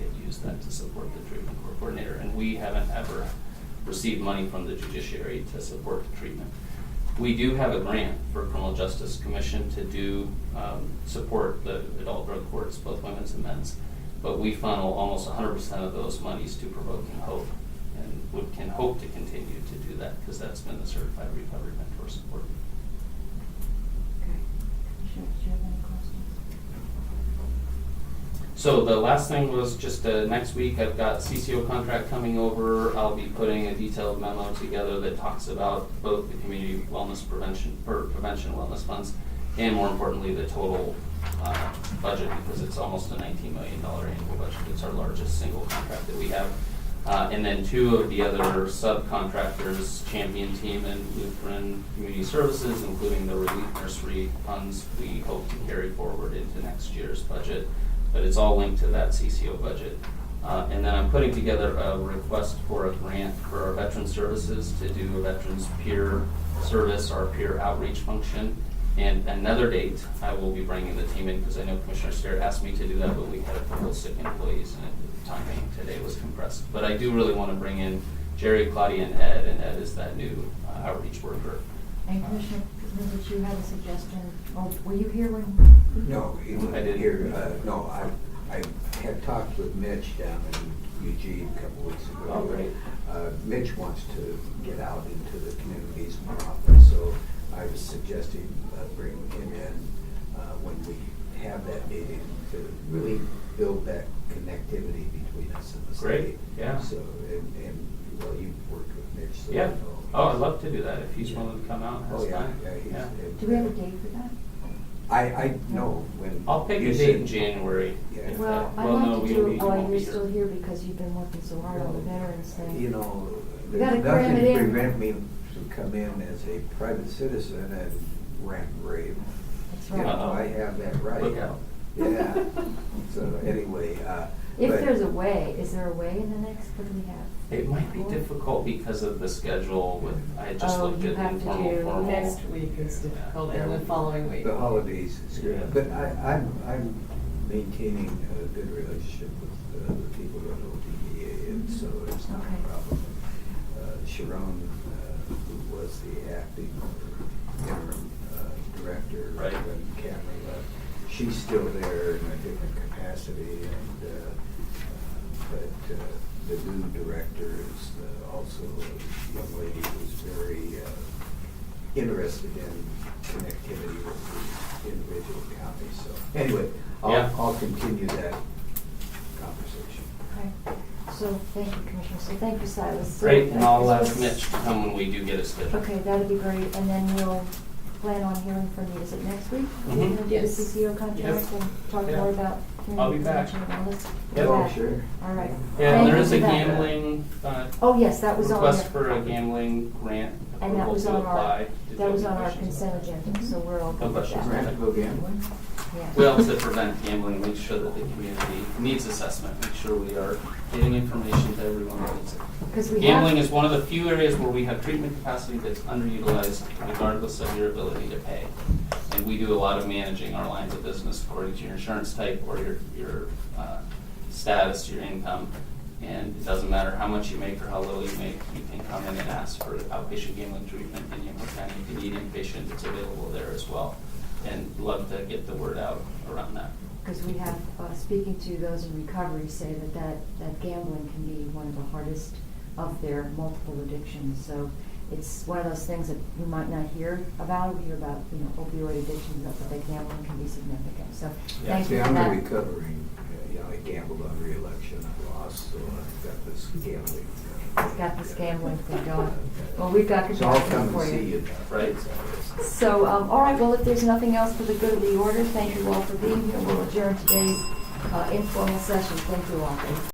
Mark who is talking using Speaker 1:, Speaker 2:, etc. Speaker 1: spent to support the treatment court coordinator, and we haven't ever received money from the judiciary to support the treatment. We do have a grant for Criminal Justice Commission to do, um, support the adult drug courts, both women's and men's. But we funnel almost hundred percent of those monies to Provoking Hope, and would, can hope to continue to do that, because that's been the certified recovery mentor support.
Speaker 2: Commissioners, do you have any questions?
Speaker 1: So the last thing was just, uh, next week, I've got CCO contract coming over, I'll be putting a detailed memo together that talks about both the community wellness prevention, or prevention wellness funds, and more importantly, the total, uh, budget, because it's almost a nineteen million dollar annual budget, it's our largest single contract that we have. Uh, and then two of the other subcontractors, Champion Team and Lutheran Community Services, including the relief nursery funds, we hope to carry forward into next year's budget but it's all linked to that CCO budget. Uh, and then I'm putting together a request for a grant for our veteran services to do a veterans peer service, our peer outreach function. And another date, I will be bringing the team in, because I know Commissioner Starrett asked me to do that, but we had a couple of sick employees, and the timing today was compressed. But I do really want to bring in Jerry, Claudia, and Ed, and Ed is that new uh, outreach worker.
Speaker 2: And Commissioner, did you have a suggestion, oh, were you here when?
Speaker 3: No, it
Speaker 1: I
Speaker 3: was
Speaker 1: didn't.
Speaker 3: here, uh, no, I, I had talked with Mitch down in Eugene a couple weeks ago.
Speaker 1: Oh, great.
Speaker 3: Uh, Mitch wants to get out into the communities more often, so I was suggesting uh, bringing him in uh, when we have that meeting to really build that connectivity between us and the state.
Speaker 1: Great, yeah.
Speaker 3: So, and, and, well, you've worked with Mitch, so you
Speaker 1: Yeah,
Speaker 3: know.
Speaker 1: oh, I'd love to do that, if he's willing to come out and
Speaker 3: Oh,
Speaker 1: has
Speaker 3: yeah,
Speaker 1: time.
Speaker 3: yeah, he's. and-
Speaker 2: Do we have a date for that?
Speaker 3: I, I know when.
Speaker 1: I'll pick
Speaker 3: you
Speaker 1: a date
Speaker 3: said-
Speaker 1: in January.
Speaker 3: Yeah.
Speaker 1: if
Speaker 2: Well,
Speaker 1: that-
Speaker 2: I'd
Speaker 1: well, no,
Speaker 2: like to
Speaker 1: we- we
Speaker 2: do,
Speaker 1: won't
Speaker 2: oh,
Speaker 1: be
Speaker 2: you're
Speaker 1: here.
Speaker 2: still here because you've been working so hard on the veterans thing.
Speaker 3: You know,
Speaker 2: You gotta
Speaker 3: there's
Speaker 2: cram
Speaker 3: nothing
Speaker 2: it in.
Speaker 3: prevent me to come in as a private citizen and rant and rave.
Speaker 2: That's
Speaker 3: You know,
Speaker 2: right.
Speaker 3: I have that
Speaker 1: Look
Speaker 3: right.
Speaker 1: out.
Speaker 3: Yeah, so anyway, uh.
Speaker 2: If
Speaker 3: but-
Speaker 2: there's a way, is there a way in the next, what do we have?
Speaker 1: It might be difficult because of the schedule with, I just
Speaker 4: Oh,
Speaker 1: looked
Speaker 4: you
Speaker 1: at
Speaker 4: have to
Speaker 1: informal,
Speaker 4: do,
Speaker 1: formal.
Speaker 4: next week is difficult, and the following week.
Speaker 3: The holidays, is good.
Speaker 1: Yeah.
Speaker 3: but I, I'm, I'm maintaining a good relationship with uh, the people at ODEA, and so it's not
Speaker 2: Okay.
Speaker 3: a problem. Uh, Sharon, uh, who was the acting or interim uh, director
Speaker 1: Right.
Speaker 3: when Cameron left, she's still there in a different capacity, and, uh, uh, but uh, the new director is uh, also a young lady who's very uh, interested in connectivity with the individual counties, so anyway,
Speaker 1: Yeah.
Speaker 3: I'll, I'll continue that conversation.
Speaker 2: Okay, so, thank you, Commissioner, so thank you, Silas. So
Speaker 1: Great, and I'll
Speaker 2: that-
Speaker 1: ask Mitch to come when we do get a schedule.
Speaker 2: Okay, that'd be great, and then we'll plan on hearing from you, is it next week?
Speaker 1: Mhm.
Speaker 2: We're gonna do the
Speaker 4: Yes.
Speaker 2: CCO contract
Speaker 1: Yep.
Speaker 2: and talk
Speaker 1: Yeah.
Speaker 2: more about.
Speaker 1: I'll be back.
Speaker 2: community prevention and wellness?
Speaker 1: Yep.
Speaker 3: Oh,
Speaker 2: Okay.
Speaker 3: sure.
Speaker 2: All right.
Speaker 1: Yeah, and
Speaker 2: Thank
Speaker 1: there
Speaker 2: you
Speaker 1: is a
Speaker 2: for that.
Speaker 1: gambling, uh,
Speaker 2: Oh, yes, that was on.
Speaker 1: request
Speaker 2: the-
Speaker 1: for a gambling grant
Speaker 2: And that
Speaker 1: approval
Speaker 2: was
Speaker 1: to
Speaker 2: on
Speaker 1: apply.
Speaker 2: our,
Speaker 1: Did you
Speaker 2: that
Speaker 1: have
Speaker 2: was
Speaker 1: any
Speaker 2: on our
Speaker 1: questions?
Speaker 2: consent agenda, so we're all
Speaker 1: No
Speaker 2: good with
Speaker 1: questions.
Speaker 2: that.
Speaker 3: Grant go gambling?
Speaker 2: Yeah.
Speaker 1: We also prevent gambling, make sure that the community needs assessment, make sure we are getting information to everyone that needs it.
Speaker 2: 'Cause we have-
Speaker 1: Gambling is one of the few areas where we have treatment capacity that's underutilized regardless of your ability to pay. And we do a lot of managing our lines of business according to your insurance type or your, your, uh, status, your income. And it doesn't matter how much you make or how little you make, you can come in and ask for outpatient gambling treatment in Yamhill County. If you need inpatient, it's available there as well. And love to get the word out around that.
Speaker 2: Because we have, uh, speaking to those in recovery say that that, that gambling can be one of the hardest of their multiple addictions. So it's one of those things that you might not hear about, you hear about, you know, opioid addiction, but that gambling can be significant. So
Speaker 1: Yeah,
Speaker 2: thank
Speaker 3: See,
Speaker 2: you for
Speaker 3: I'm
Speaker 2: that.
Speaker 3: recovering, uh, you know, I gambled on reelection, I lost, so I've got this gambling. uh,
Speaker 2: It's Got this gambling thing going.
Speaker 3: uh,
Speaker 2: Well, we've got good
Speaker 3: So I'll
Speaker 2: counseling
Speaker 3: come
Speaker 2: for
Speaker 3: and see
Speaker 2: you.
Speaker 3: you.
Speaker 1: Right.
Speaker 2: So, um, all right, well, if there's nothing else for the good of the order, thank you all for being here. We'll adjourn today's, uh, informal session. Thank you all.